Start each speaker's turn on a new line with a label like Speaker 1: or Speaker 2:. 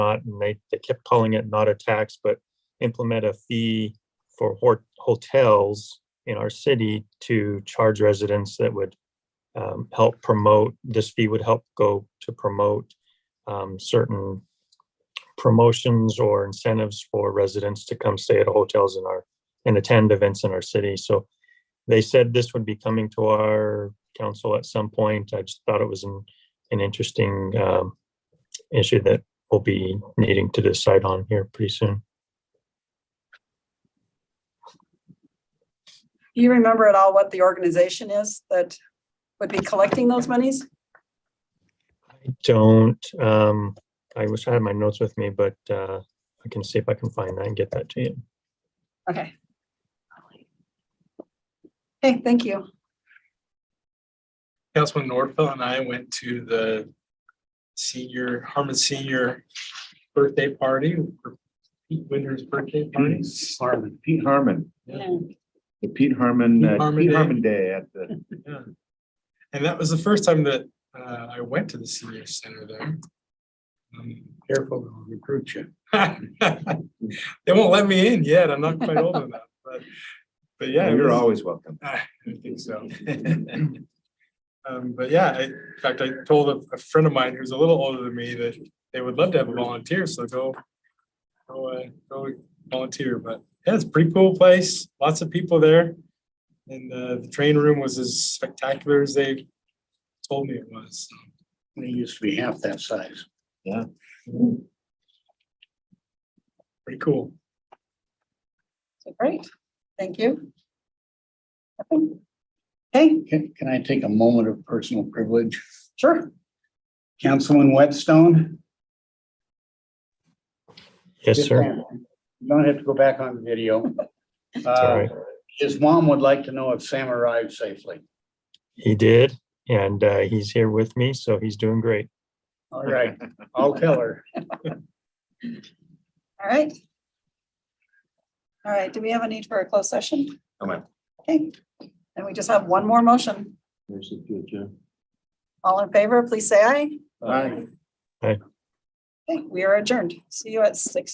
Speaker 1: not, and they, they kept calling it not a tax, but implement a fee for hor- hotels in our city to charge residents that would um, help promote, this fee would help go to promote um, certain promotions or incentives for residents to come stay at hotels in our, and attend events in our city. So they said this would be coming to our council at some point. I just thought it was an, an interesting um, issue that we'll be needing to decide on here pretty soon.
Speaker 2: Do you remember at all what the organization is that would be collecting those monies?
Speaker 1: I don't, um, I wish I had my notes with me, but uh, I can see if I can find that and get that to you.
Speaker 2: Okay. Okay, thank you.
Speaker 3: Councilman Norfeld and I went to the senior, Harmon Senior birthday party, for Pete Winter's birthday party.
Speaker 4: Pete Harmon, Pete Harmon,
Speaker 3: Yeah.
Speaker 4: the Pete Harmon,
Speaker 3: Pete
Speaker 4: uh,
Speaker 3: Harmon
Speaker 4: Pete
Speaker 3: Day.
Speaker 4: Harmon Day at the,
Speaker 3: And that was the first time that uh, I went to the senior center there. Um, Careful, they'll recruit you. They won't let me in yet. I'm not quite old enough, but, but yeah. it
Speaker 4: you're
Speaker 3: was-
Speaker 4: always welcome.
Speaker 3: I think so. Um, but yeah, I, in fact, I told a, a friend of mine who's a little older than me that they would love to have a volunteer, so go. Go, uh, go volunteer, but yeah, it's a pretty cool place, lots of people there. And, uh, the train room was as spectacular as they told me it was.
Speaker 5: They used to be half that size.
Speaker 3: Pretty cool.
Speaker 2: So Great, thank you. Hey,
Speaker 5: Can, can I take a moment of personal privilege?
Speaker 2: sure.
Speaker 5: Councilman Whetstone?
Speaker 1: Yes, sir.
Speaker 5: You don't have to go back on video.
Speaker 1: all
Speaker 5: Uh,
Speaker 1: right.
Speaker 5: His mom would like to know if Sam arrived safely.
Speaker 1: He did, and uh, he's here with me, so he's doing great.
Speaker 5: All right, I'll tell her.
Speaker 2: All right. All right, do we have a need for a closed session?
Speaker 4: No, ma'am.
Speaker 2: Okay, and we just have one more motion. All in favor, please say aye.
Speaker 4: Bye.
Speaker 2: Okay, we are adjourned. See you at six